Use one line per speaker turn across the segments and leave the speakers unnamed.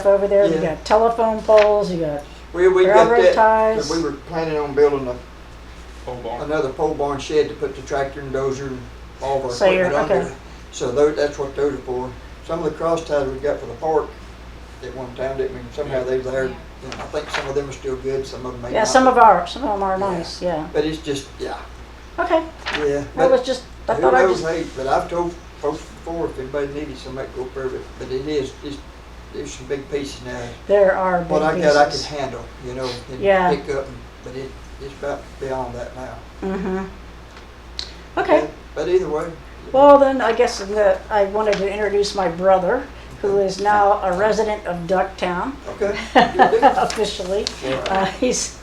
stuff over there. You
Yeah.
got telephone poles, you got,
We, we got
Railroad
that,
ties.
we were planning on building a,
Pole barn.
another pole barn shed to put the tractor and dozer and all of our
So you're-
equipment under.
okay.
So those, that's what those are for. Some of the cross ties we got for the park at one time, didn't we, somehow they there. And I think some of them are still good, some of them may not.
yeah, some of our, some of them are
Yeah.
nice, yeah.
But it's just, yeah,
Okay,
yeah.
that
But
was just, I
who
thought I
knows,
just,
hey, but I've told folks before, if anybody needed some, I'd go for it, but it is, it's, there's some big pieces now.
there are big pieces.
What I got, I can handle, you know, and
Yeah.
pick up, and- but it, it's about beyond that now.
Mm-hmm. Okay,
But either way.
well then, I guess the, I wanted to introduce my brother, who is now a resident of Ducktown.
Okay. Oh,
officially.
Right.
Uh, he's,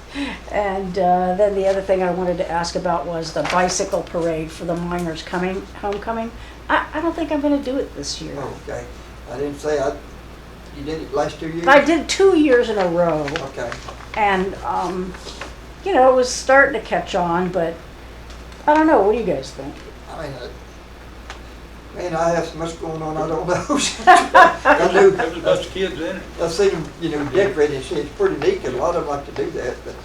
and uh, then the other thing I wanted to ask about was the bicycle parade for the miners coming homecoming. I, I don't think I'm going to do it this year.
Okay. I didn't say I, you did it last two years?
I did two years in a row,
Okay.
and um, you know it was starting to catch on, but I don't know. What do you guys think?
I mean, I- man, I have so much going on, I don't know. I do,
There's a bunch of kids in it.
I've seen them, you know, decorated, and shit. it's pretty neat, and a lot of them like to do that, but,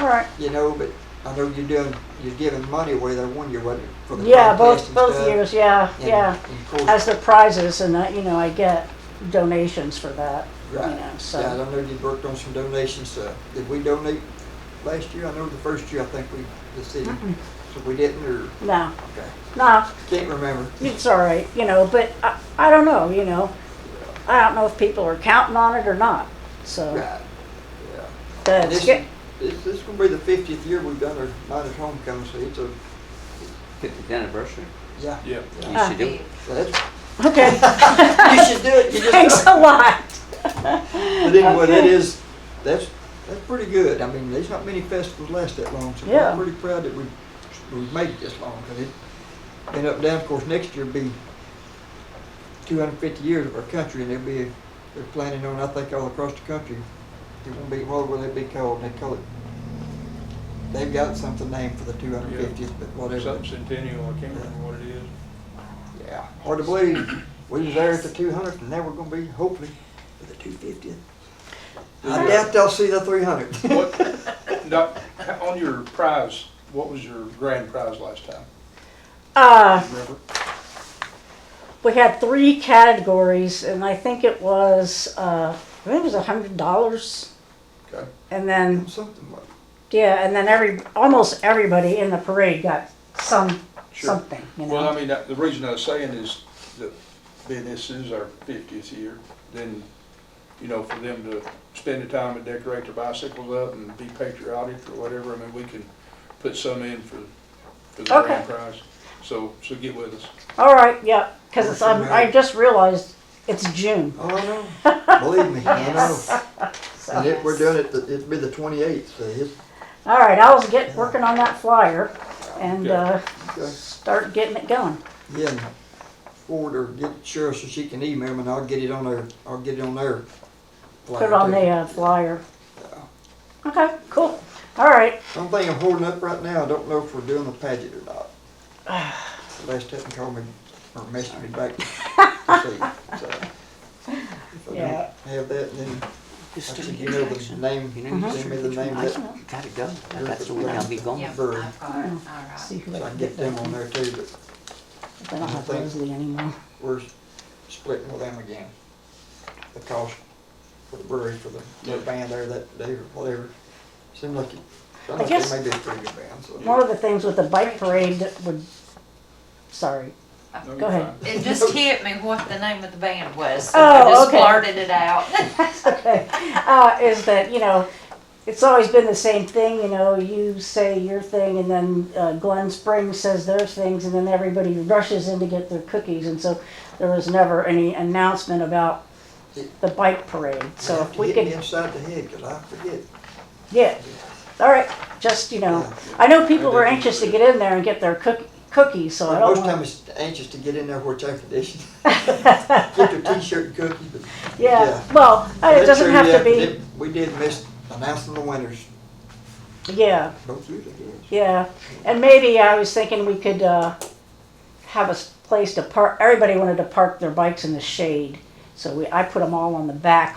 All right.
you know, but I know you're doing, you're giving money away there one year, wasn't it? for the
Yeah,
contest
both
and
both
stuff?
years. Yeah,
uh, And-
yeah.
and of course,
As the prizes, and uh, you know, I get donations for that.
Right.
You know, so
Yeah, I don't know, you worked on some donations, uh, did we donate last year? I know the first year, I think we, the city,
Mm-mm.
so we didn't, or,
no,
okay,
no.
can't remember.
it's all right, you know, but I, I don't know, you know. I don't know if people are counting on it or not. So
Right, yeah. And
that's
This,
good.
this, this is gonna be the fiftieth year we've done our Miners Homecoming, so it's a,
Fiftieth anniversary.
yeah.
Yeah.
You
Ah.
should do it.
So that's-
Okay,
You should do it, you just.
thanks a lot.
But anyway, that
Okay.
is, that's, that's pretty good. I mean, there's not many festivals last that long, so
Yeah.
I'm pretty proud that we've, we've made it this long, because it, and up down, of course, next year be two hundred and fifty years of our country, and there'll be, they're planning on, I think, all across the country. It won't be, what will it be called? They call it, they've got something named for the two hundred and fiftieth, but whatever.
Something centennial, I can't remember what it is.
Yeah, hard to believe. We was there at the two hundredth, and now we're gonna be, hopefully, at the two fiftieth. I doubt they'll see the three hundred.
What, Doc, on your prize, what was your grand prize last time?
Uh,
Remember?
we had three categories, and I think it was uh, I think it was a hundred dollars,
Okay.
and then
Something like,
yeah, and then every almost everybody in the parade got some
Sure.
something. You know?
Well, I mean, that- the reason I was saying is that being this is our fiftieth year, then, you know, for them to spend the time and decorate their bicycles up and be patriotic or whatever, I mean, we can put some in for, for the
Okay.
grand prize. So, so get with us.
All right, yeah, because
Working
I
out.
just realized it's June.
oh, I know. Believe me, I know.
So.
And it, we're doing it, the- it'd be the twenty-eighth, so it's,
All right, I was get working on that flyer and uh,
Yeah.
Okay.
start getting it going.
yeah. and Forward or get Cheryl so she can email me, and I'll get it on there, I'll get it on there.
Put it on the uh, flyer. Okay, cool. All right.
One thing I'm holding up right now, I don't know if we're doing the pageant or not. Last time called me or messaged me back to see, so. If I
Yeah.
don't have that, then I
Just do
think
it
you
in
know the
action.
name,
You know, you
send me the name
I
that,
can
so
You Mm-hmm. gotta go. That's the way I'll be going.
Yeah.
Yeah,
Bird.
I've got it, all
Oh, see
right.
who
I
I
can
can
get them on
there.
there too, but
I don't have Leslie anymore.
we're splitting with them again. The cost for the brewery, for the
Yeah.
the band there that day or whatever. Seems like, it- sounds like
guess-
they may be a pretty good band, so.
One of the things with the bike parade that would, sorry.
No, you're
Uh, Go ahead.
fine.
It just hit me what the name of the band was, so
Oh,
I just
okay.
blurted it out.
Okay. Uh, is that, you know, it's always been the same thing, you know, you say your thing and then uh, Glen Springs says their things and then everybody rushes in to get their cookies. And so there was never any announcement about the bike parade. So if we
Hit me
could,
inside the head, 'cause I forget.
yeah, all right, just, you know, I know people were anxious to get in there and get their cook cookies, so I
Most
don't
time
want.
it's anxious to get in there where it's air conditioned. Get their t-shirt and cookies, but.
Yeah, well, it
That's
doesn't
true,
have
yeah,
to be,
did- We did miss announcing the winners,
yeah.
both years, I guess.
Yeah, and maybe I was thinking we could uh, have a s- place to park. Everybody wanted to park their bikes in the shade, So we, I put them all on the back